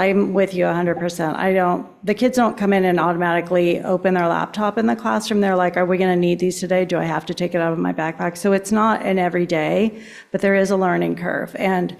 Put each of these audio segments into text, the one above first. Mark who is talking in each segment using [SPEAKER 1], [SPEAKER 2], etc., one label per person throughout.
[SPEAKER 1] I'm with you 100%. I don't, the kids don't come in and automatically open their laptop in the classroom. They're like, are we going to need these today? Do I have to take it out of my backpack? So it's not an everyday, but there is a learning curve. And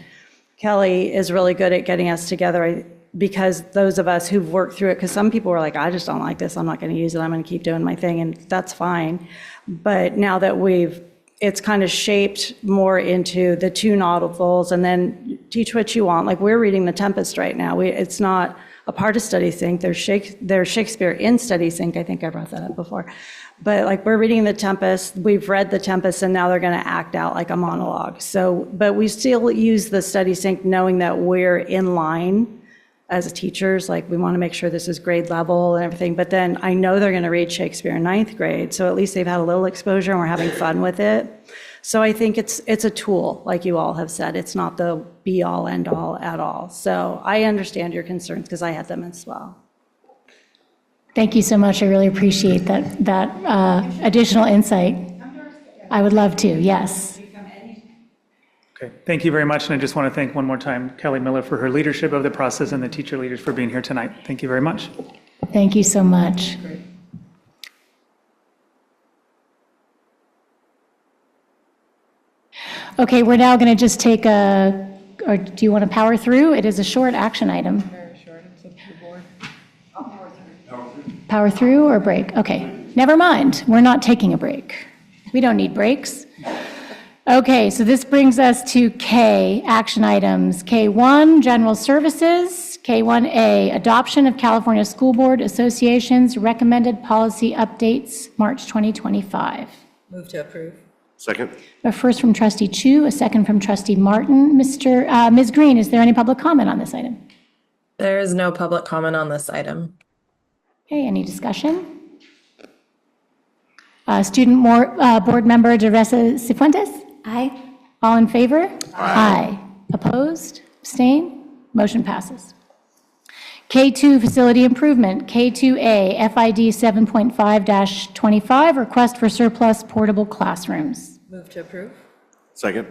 [SPEAKER 1] Kelly is really good at getting us together I- because those of us who've worked through it, because some people were like, I just don't like this. I'm not going to use it. I'm going to keep doing my thing. And that's fine. But now that we've, it's kind of shaped more into the two novels and then teach what you want. Like we're reading The Tempest right now. We, it's not a part of Study Sync. There's Shake, there's Shakespeare in Study Sync. I think I brought that up before. But like we're reading The Tempest, we've read The Tempest, and now they're going to act out like a monologue. So, but we still use the Study Sync knowing that we're in line as teachers, like, we want to make sure this is grade level and everything, but then I know they're going to read Shakespeare in ninth grade, so at least they've had a little exposure and we're having fun with it. So I think it's, it's a tool, like you all have said, it's not the be-all, end-all at all. So I understand your concerns, because I had them as well.
[SPEAKER 2] Thank you so much. I really appreciate that, that uh, additional insight. I would love to, yes.
[SPEAKER 3] Okay, thank you very much, and I just want to thank one more time Kelly Miller for her leadership of the process and the teacher leaders for being here tonight. Thank you very much.
[SPEAKER 2] Thank you so much. Okay, we're now going to just take a, or do you want to power through? It is a short action item. Power through or break? Okay, never mind. We're not taking a break. We don't need breaks. Okay, so this brings us to K, action items. K1, general services. K1A, adoption of California School Board Association's recommended policy updates, March 2025.
[SPEAKER 4] Move to approve.
[SPEAKER 5] Second?
[SPEAKER 2] A first from trustee Chu, a second from trustee Martin. Mr., uh, Ms. Green, is there any public comment on this item?
[SPEAKER 4] There is no public comment on this item.
[SPEAKER 2] Okay, any discussion? Uh, Student Mor- uh, Board Member Teresa Cifuentes? Aye. All in favor? Aye. Opposed? Abstain? Motion passes. K2 Facility Improvement, K2A FID 7.5-25, Request for Surplus Portable Classrooms.
[SPEAKER 4] Move to approve.
[SPEAKER 5] Second?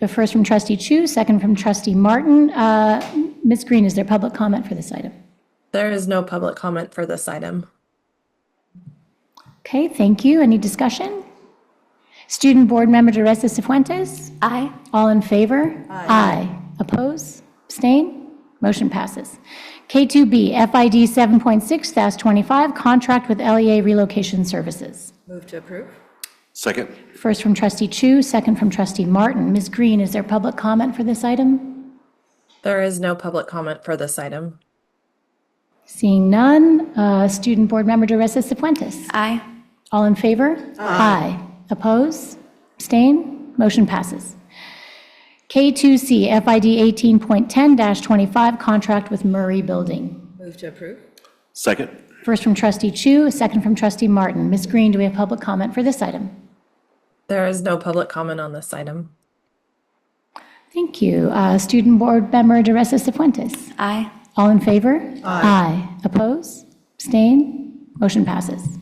[SPEAKER 2] The first from trustee Chu, second from trustee Martin. Uh, Ms. Green, is there public comment for this item?
[SPEAKER 4] There is no public comment for this item.
[SPEAKER 2] Okay, thank you. Any discussion? Student Board Member Teresa Cifuentes? Aye. All in favor? Aye. Oppose? Abstain? Motion passes. K2B, FID 7.6-25, Contract with LEA Relocation Services.
[SPEAKER 4] Move to approve.
[SPEAKER 5] Second?
[SPEAKER 2] First from trustee Chu, second from trustee Martin. Ms. Green, is there public comment for this item?
[SPEAKER 4] There is no public comment for this item.
[SPEAKER 2] Seeing none, uh, Student Board Member Teresa Cifuentes?
[SPEAKER 4] Aye.
[SPEAKER 2] All in favor? Aye. Oppose? Abstain? Motion passes. K2C FID 18.10-25, contract with Murray Building.
[SPEAKER 4] Move to approve.
[SPEAKER 5] Second?
[SPEAKER 2] First from trustee Chu, a second from trustee Martin. Ms. Green, do we have public comment for this item?
[SPEAKER 4] There is no public comment on this item.
[SPEAKER 2] Thank you. Uh, Student Board Member DeRessa Cifuentes?
[SPEAKER 4] Aye.
[SPEAKER 2] All in favor? Aye. Oppose? Abstain? Motion passes.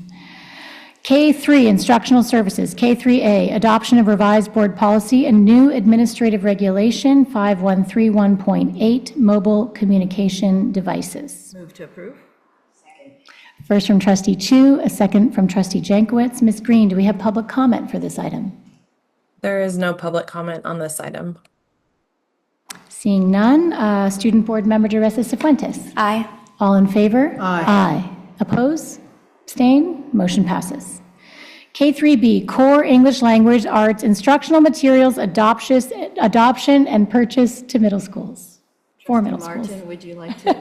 [SPEAKER 2] K3, Instructional Services, K3A, Adoption of Revised Board Policy and New Administrative Regulation 5131.8, Mobile Communication Devices.
[SPEAKER 4] Move to approve.
[SPEAKER 2] First from trustee Chu, a second from trustee Jankowicz. Ms. Green, do we have public comment for this item?
[SPEAKER 4] There is no public comment on this item.
[SPEAKER 2] Seeing none, uh, Student Board Member DeRessa Cifuentes?
[SPEAKER 4] Aye.
[SPEAKER 2] All in favor? Aye. Aye. Oppose? Abstain? Motion passes. K3B, Core English Language Arts Instructional Materials Adoption Adoption and Purchase to Middle Schools, for middle schools.
[SPEAKER 6] Martin, would you like to?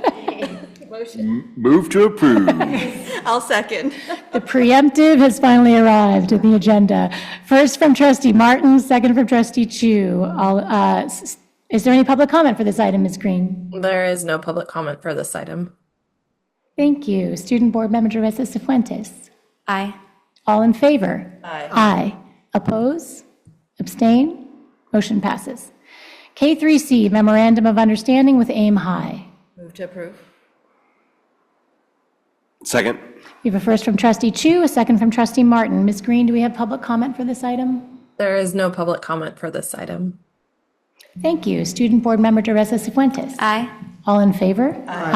[SPEAKER 5] Move to approve.
[SPEAKER 6] I'll second.
[SPEAKER 2] The preemptive has finally arrived at the agenda. First from trustee Martin, second from trustee Chu. All, uh, s- s- Is there any public comment for this item, Ms. Green?
[SPEAKER 4] There is no public comment for this item.
[SPEAKER 2] Thank you. Student Board Member Teresa Cifuentes.
[SPEAKER 6] Aye.
[SPEAKER 2] All in favor?
[SPEAKER 4] Aye.
[SPEAKER 2] Aye. Oppose? Abstain? Motion passes. K3C, Memorandum of Understanding with Aim High.
[SPEAKER 4] Move to approve.
[SPEAKER 5] Second?
[SPEAKER 2] We have a first from trustee Chu, a second from trustee Martin. Ms. Green, do we have public comment for this item?
[SPEAKER 4] There is no public comment for this item.
[SPEAKER 2] Thank you. Student Board Member Teresa Cifuentes.
[SPEAKER 6] Aye.
[SPEAKER 2] All in favor?